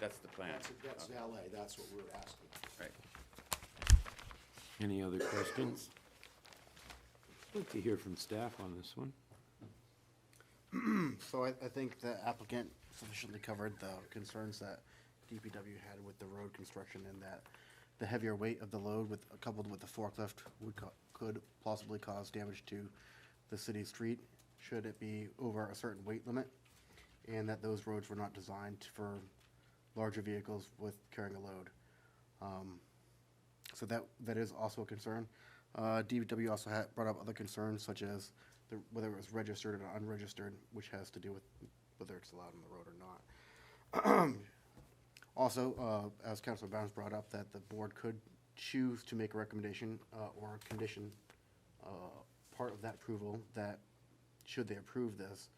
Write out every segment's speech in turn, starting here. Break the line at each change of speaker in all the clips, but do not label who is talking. that's the plan.
That's, that's valet, that's what we're asking.
Right.
Any other questions? I'd like to hear from staff on this one.
So I, I think the applicant sufficiently covered the concerns that DPW had with the road construction and that the heavier weight of the load with, coupled with the forklift would, co- could possibly cause damage to the city street should it be over a certain weight limit, and that those roads were not designed for larger vehicles with carrying a load. Um, so that, that is also a concern. Uh, DPW also had, brought up other concerns such as the, whether it was registered or unregistered, which has to do with whether it's allowed on the road or not. Also, uh, as Councilor Barnes brought up, that the board could choose to make a recommendation, uh, or a condition, uh, part of that approval, that should they approve this,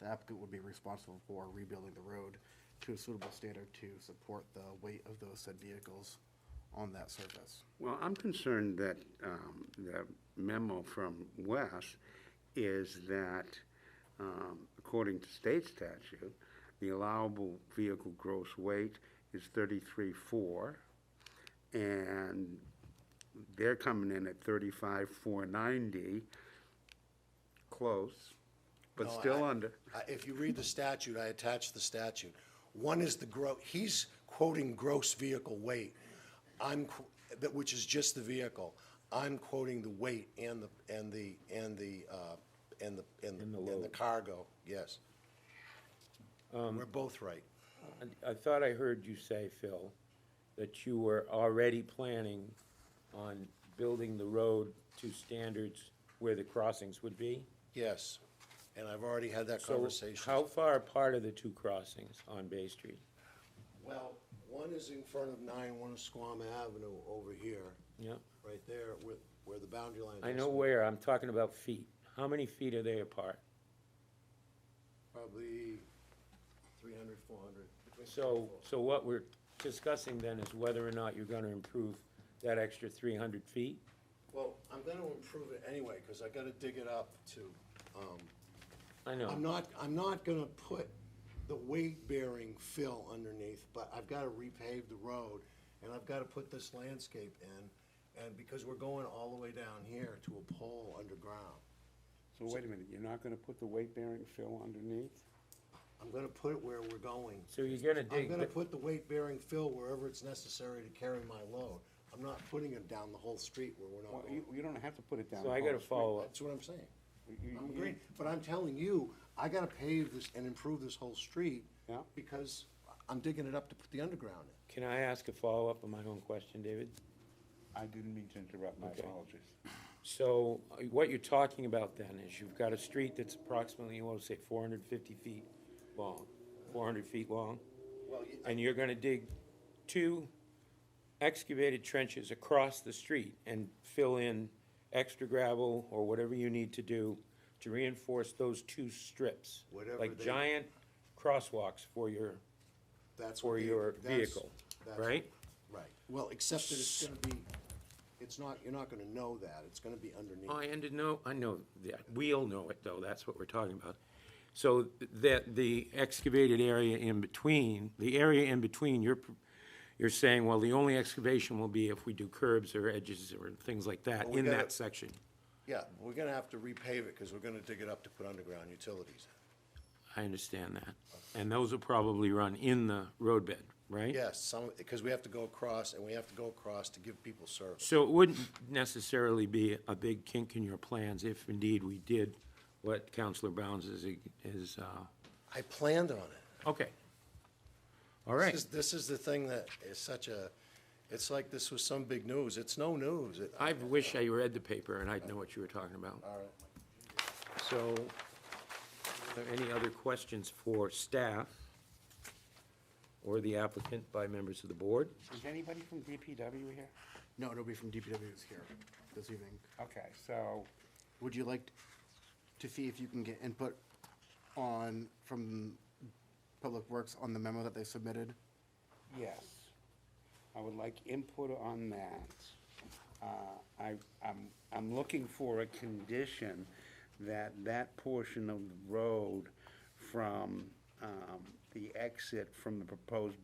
the applicant would be responsible for rebuilding the road to a suitable standard to support the weight of those said vehicles on that surface.
Well, I'm concerned that um, the memo from Wes is that, um, according to state statute, the allowable vehicle gross weight is 33.4, and they're coming in at 35.490, close, but
No,
still
I-
under.
I- If you read the statute, I attached the statute. One is the gro, he's quoting gross vehicle weight. I'm, qu- that, which is just the vehicle. I'm quoting the weight and the, and the, and the, uh, and the, and the, and the cargo, yes.
Um,
We're both right.
I- I thought I heard you say, Phil, that you were already planning on building the road to standards where the crossings would be?
Yes, and I've already had that
So
conversation.
how far apart are the two crossings on Bay Street?
Well, one is in front of nine, one is Squam Avenue over here,
Yeah,
right there with, where the boundary line is.
I know where, I'm talking about feet. How many feet are they apart?
Probably three hundred, four hundred.
So, so what we're discussing then is whether or not you're gonna improve that extra three hundred feet?
Well, I'm gonna improve it anyway, cause I gotta dig it up to, um,
I
I'm
know,
not, I'm not gonna put the weight-bearing fill underneath, but I've gotta repave the road, and I've gotta put this landscape in, and because we're going all the way down here to a pole underground.
So wait a minute, you're not going to put the weight-bearing fill underneath?
I'm gonna put it where we're going.
so you're gonna
I'm
dig,
gonna put the weight-bearing fill wherever it's necessary to carry my load. I'm not putting it down the whole street where we're
Well,
not
You
going.
you don't have to put it down.
so I
the whole
gotta
street.
follow up.
That's what I'm saying.
you-
I'm
you-
agreeing, but I'm telling you, I gotta pave this and improve this whole street.
Yeah.
Because I'm digging it up to put the underground in.
Can I ask a follow-up on my own question, David?
I didn't mean to interrupt, my apologies.
So uh, what you're talking about then is you've got a street that's approximately, you want to say, four hundred fifty feet long, four hundred feet long? And you're gonna dig two excavated trenches across the street and fill in extra gravel or whatever you need to do to reinforce those two strips?
Whatever
Like
they-
giant crosswalks for your,
That's
for
what they-
your
that's-
vehicle,
that's-
right?
Right. Well, except that it's gonna be, it's not, you're not gonna know that. It's gonna be underneath.
I ended, no, I Oh, know that, we all know it, though, that's what we're talking about. So that the excavated area in between, the area in between, you're, you're saying, well, the only excavation will be if we do curbs or edges or things like that
Well, we
in
gotta-
that section.
Yeah, we're gonna have to repave it, cause we're gonna dig it up to put underground utilities.
I understand that. And those will probably run in the roadbed, right?
Yes, some, because we have to go across, and we have to go across to give people service.
So it wouldn't necessarily be a big kink in your plans if indeed we did what Counselor Bounds is, is, uh,
I planned on it.
okay. All
This
right.
is- This is the thing that is such a, it's like this was some big news. It's no news. It-
I wish I read the paper and I'd know what you were talking about.
All right.
So, are there any other questions for staff or the applicant by members of the board?
Is anybody from DPW here?
No, nobody from DPW is here this evening.
Okay, so,
Would you like to see if you can get input on, from Public Works on the memo that they submitted?
yes, I would like input on that. Uh, I, I'm, I'm looking for a condition that that portion of the road from um, the exit from the proposed